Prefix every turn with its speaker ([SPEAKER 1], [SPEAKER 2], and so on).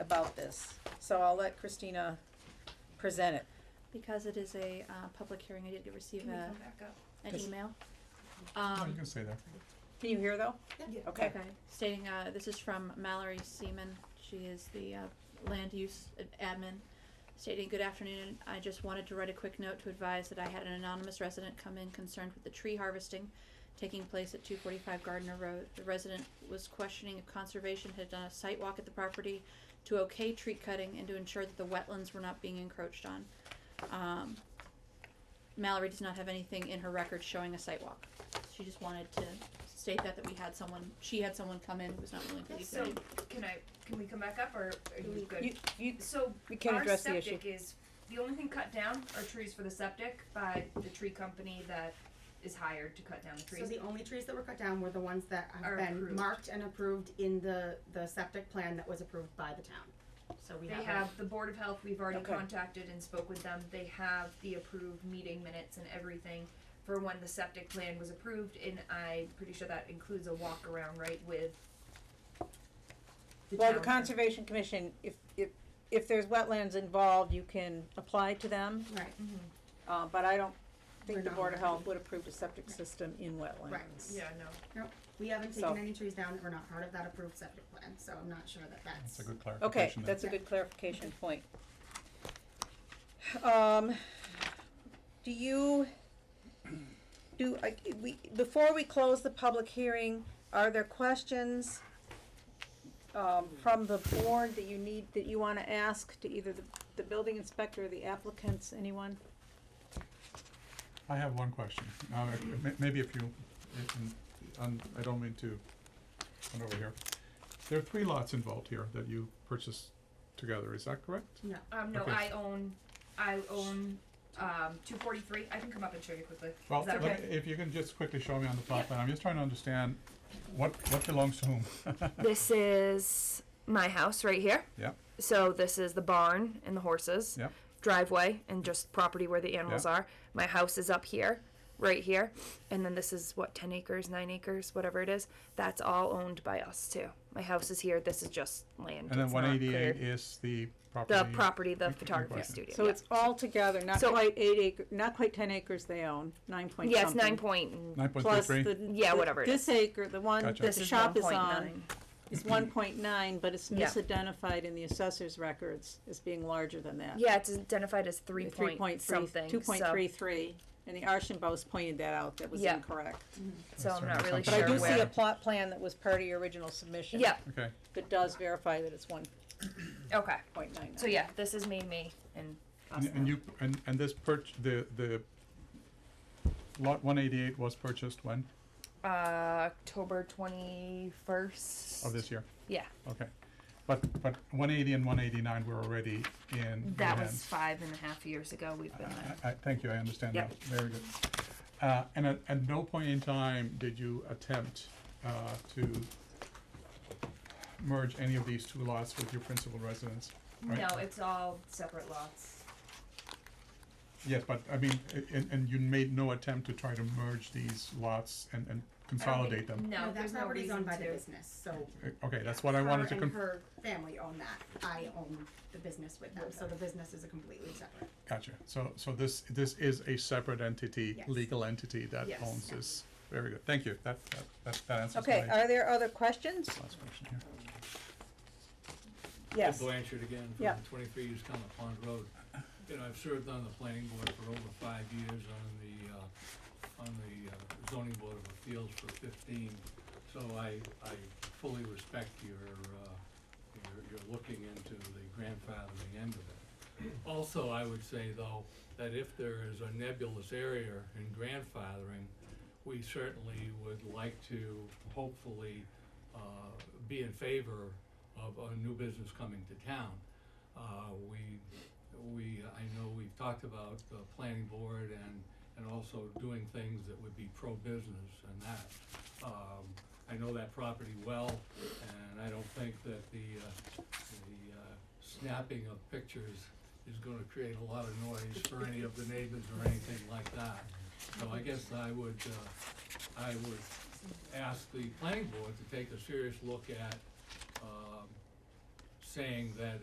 [SPEAKER 1] about this, so I'll let Christina present it.
[SPEAKER 2] because it is a, uh, public hearing, I did receive
[SPEAKER 3] Can we
[SPEAKER 2] a,
[SPEAKER 3] come back up?
[SPEAKER 2] an
[SPEAKER 1] Yes.
[SPEAKER 2] email.
[SPEAKER 4] Oh, you
[SPEAKER 2] Um,
[SPEAKER 4] can say that.
[SPEAKER 1] Can you hear though?
[SPEAKER 3] Yeah.
[SPEAKER 1] Okay.
[SPEAKER 2] Stating, uh, this is from Mallory Seaman, she is the, uh, land use ad- admin, stating, good afternoon, I just wanted to write a quick note to advise that I had an anonymous resident come in concerned with the tree harvesting taking place at two forty-five Gardner Road. The resident was questioning if conservation had done a site walk at the property to okay tree cutting and to ensure that the wetlands were not being encroached on. Um, Mallory does not have anything in her record showing a site walk. She just wanted to state that, that we had someone, she had someone come in who was not willing to leave
[SPEAKER 3] So,
[SPEAKER 2] their
[SPEAKER 3] can I, can we come back up, or are you
[SPEAKER 1] You,
[SPEAKER 3] good?
[SPEAKER 1] you,
[SPEAKER 3] So,
[SPEAKER 1] we can
[SPEAKER 3] our
[SPEAKER 1] address the issue.
[SPEAKER 3] septic is, the only thing cut down are trees for the septic by the tree company that is hired to cut down the
[SPEAKER 5] So
[SPEAKER 3] trees.
[SPEAKER 5] the only trees that were cut down were the ones that
[SPEAKER 3] Are
[SPEAKER 5] have been
[SPEAKER 3] approved.
[SPEAKER 5] marked and approved in the, the septic plan that was approved by the town. So we
[SPEAKER 3] They
[SPEAKER 5] have.
[SPEAKER 3] have the Board of Health, we've already
[SPEAKER 1] Okay.
[SPEAKER 3] contacted and spoke with them, they have the approved meeting minutes and everything for when the septic plan was approved, and I'm pretty sure that includes a walk around, right, with the
[SPEAKER 1] Well, the
[SPEAKER 3] town.
[SPEAKER 1] Conservation Commission, if, if, if there's wetlands involved, you can apply to them,
[SPEAKER 5] Right,
[SPEAKER 3] Mhm.
[SPEAKER 1] uh, but I don't
[SPEAKER 5] We're
[SPEAKER 1] think the
[SPEAKER 5] not
[SPEAKER 1] Board of
[SPEAKER 5] allowed.
[SPEAKER 1] Health would approve a septic system in wetlands.
[SPEAKER 3] Yeah, no,
[SPEAKER 5] we haven't
[SPEAKER 1] So-
[SPEAKER 5] taken any trees down that were not part of that approved septic plan, so I'm not sure that that's.
[SPEAKER 4] That's a good
[SPEAKER 1] Okay,
[SPEAKER 4] clarification there.
[SPEAKER 1] that's a good clarification point. Um, do you, do, I, we, before we close the public hearing, are there questions um, from the board that you need, that you wanna ask to either the, the building inspector or the applicants, anyone?
[SPEAKER 4] I have one question. Uh, if- may- maybe if you, if, and- and I don't mean to, come over here. There are three lots involved here that you purchased together, is that correct?
[SPEAKER 5] No,
[SPEAKER 3] um, no,
[SPEAKER 4] Okay.
[SPEAKER 3] I own, I own, um, two forty-three, I can come up and show you quickly,
[SPEAKER 4] Well,
[SPEAKER 3] Is that
[SPEAKER 4] let
[SPEAKER 3] okay?
[SPEAKER 4] me- if you can just quickly show me on the plot plan, I'm just trying to understand what, what belongs to whom.
[SPEAKER 6] This is my house right here.
[SPEAKER 4] uh, Yep.
[SPEAKER 6] So this is the barn and the horses.
[SPEAKER 4] Yep.
[SPEAKER 6] Driveway and just property where the animals
[SPEAKER 4] Yep.
[SPEAKER 6] are. My house is up here, right here. And then this is what, 10 acres, 9 acres, whatever it is. That's all owned by us too. My house is here. This is just land.
[SPEAKER 4] And then
[SPEAKER 6] It's
[SPEAKER 4] one
[SPEAKER 6] not
[SPEAKER 4] eighty-eight
[SPEAKER 6] cleared.
[SPEAKER 4] is the property.
[SPEAKER 6] the property,
[SPEAKER 4] in-
[SPEAKER 6] the
[SPEAKER 4] in
[SPEAKER 6] photography
[SPEAKER 4] question.
[SPEAKER 6] studio.
[SPEAKER 1] So
[SPEAKER 6] yeah.
[SPEAKER 1] it's all together, not
[SPEAKER 6] So-
[SPEAKER 1] quite eight acre, not quite ten acres they own, nine point
[SPEAKER 6] yeah, it's
[SPEAKER 1] something.
[SPEAKER 6] nine point.
[SPEAKER 4] Nine point
[SPEAKER 1] Plus
[SPEAKER 4] three
[SPEAKER 1] the,
[SPEAKER 4] three,
[SPEAKER 6] Yeah,
[SPEAKER 1] the-
[SPEAKER 6] whatever it
[SPEAKER 1] this acre, the one that
[SPEAKER 4] Gotcha.
[SPEAKER 1] the
[SPEAKER 6] This is
[SPEAKER 1] shop is on.
[SPEAKER 6] 1.9.
[SPEAKER 1] It's one point nine, but it's
[SPEAKER 6] Yeah.
[SPEAKER 1] misidentified in the assessor's records as being larger than that.
[SPEAKER 6] Yeah, it's identified as three,
[SPEAKER 1] Three point three,
[SPEAKER 6] something.
[SPEAKER 1] two point
[SPEAKER 6] so-
[SPEAKER 1] three three, and the Archibald's pointed that out, that was
[SPEAKER 6] Yeah.
[SPEAKER 1] incorrect.
[SPEAKER 6] So, I'm not really
[SPEAKER 4] But
[SPEAKER 1] But I
[SPEAKER 6] sure
[SPEAKER 1] do
[SPEAKER 6] where.
[SPEAKER 1] see a plot plan that was part of your original submission.
[SPEAKER 6] yeah.
[SPEAKER 4] okay.
[SPEAKER 1] That does verify that it's one
[SPEAKER 6] Okay.
[SPEAKER 1] point nine nine.
[SPEAKER 6] So yeah, this is me, me, and us.
[SPEAKER 4] And, and you, and, and this perch, the, the lot one eighty-eight was purchased when,
[SPEAKER 6] uh, October twenty
[SPEAKER 1] Oh,
[SPEAKER 6] first
[SPEAKER 4] of this year?
[SPEAKER 6] Yeah,
[SPEAKER 4] Okay, but, but one eighty and one eighty-nine were already in your
[SPEAKER 6] that was
[SPEAKER 4] hands.
[SPEAKER 6] five and a half years ago. We've been
[SPEAKER 1] Uh,
[SPEAKER 6] there.
[SPEAKER 4] I, I, thank you, I understand
[SPEAKER 6] Yep.
[SPEAKER 4] that, very good. Uh, and at, at no point in time did you attempt, uh, to merge any of these two lots with your principal residence, right?
[SPEAKER 3] No, it's all separate lots.
[SPEAKER 4] Yes, but I mean, a- and, and you made no attempt to try to merge these lots and, and
[SPEAKER 3] I don't
[SPEAKER 4] consolidate
[SPEAKER 3] think-
[SPEAKER 6] Um,
[SPEAKER 4] them?
[SPEAKER 3] No,
[SPEAKER 5] that
[SPEAKER 3] there's no
[SPEAKER 5] property's
[SPEAKER 3] reason
[SPEAKER 5] owned by the
[SPEAKER 3] to.
[SPEAKER 5] business, so.
[SPEAKER 4] Uh, Okay, that's what I wanted to
[SPEAKER 5] Her
[SPEAKER 4] con-
[SPEAKER 5] and her family own that, I own the business with them, so the business is a completely separate.
[SPEAKER 4] Gotcha. So, so this, this is a separate entity,
[SPEAKER 5] Yes.
[SPEAKER 4] legal entity that
[SPEAKER 3] Yes.
[SPEAKER 4] owns this. Very good. Thank you. That, that, that, that answers
[SPEAKER 1] Okay, uh,
[SPEAKER 4] my
[SPEAKER 1] are there other questions?
[SPEAKER 4] last question here.
[SPEAKER 1] Yes.
[SPEAKER 7] Ed Blanchard again
[SPEAKER 1] Yeah.
[SPEAKER 7] from twenty-three East Common Pond Road. You know, I've served on the planning board for over five years, on the, uh, on the uh, zoning board of appeals for fifteen. So I, I fully respect your, uh, your, your looking into the grandfathering end of it. Also, I would say though, that if there is a nebulous area in grandfathering, we certainly would like to hopefully, uh, be in favor of a new business coming to town. Uh, we, we, I know we've talked about the planning board and, and also doing things that would be pro-business and that. Um, I know that property well, and I don't think that the, uh, the, uh, snapping of pictures is gonna create a lot of noise for any of the neighbors or anything like that. So I guess I would, uh, I would ask the planning board to take a serious look at, um, saying that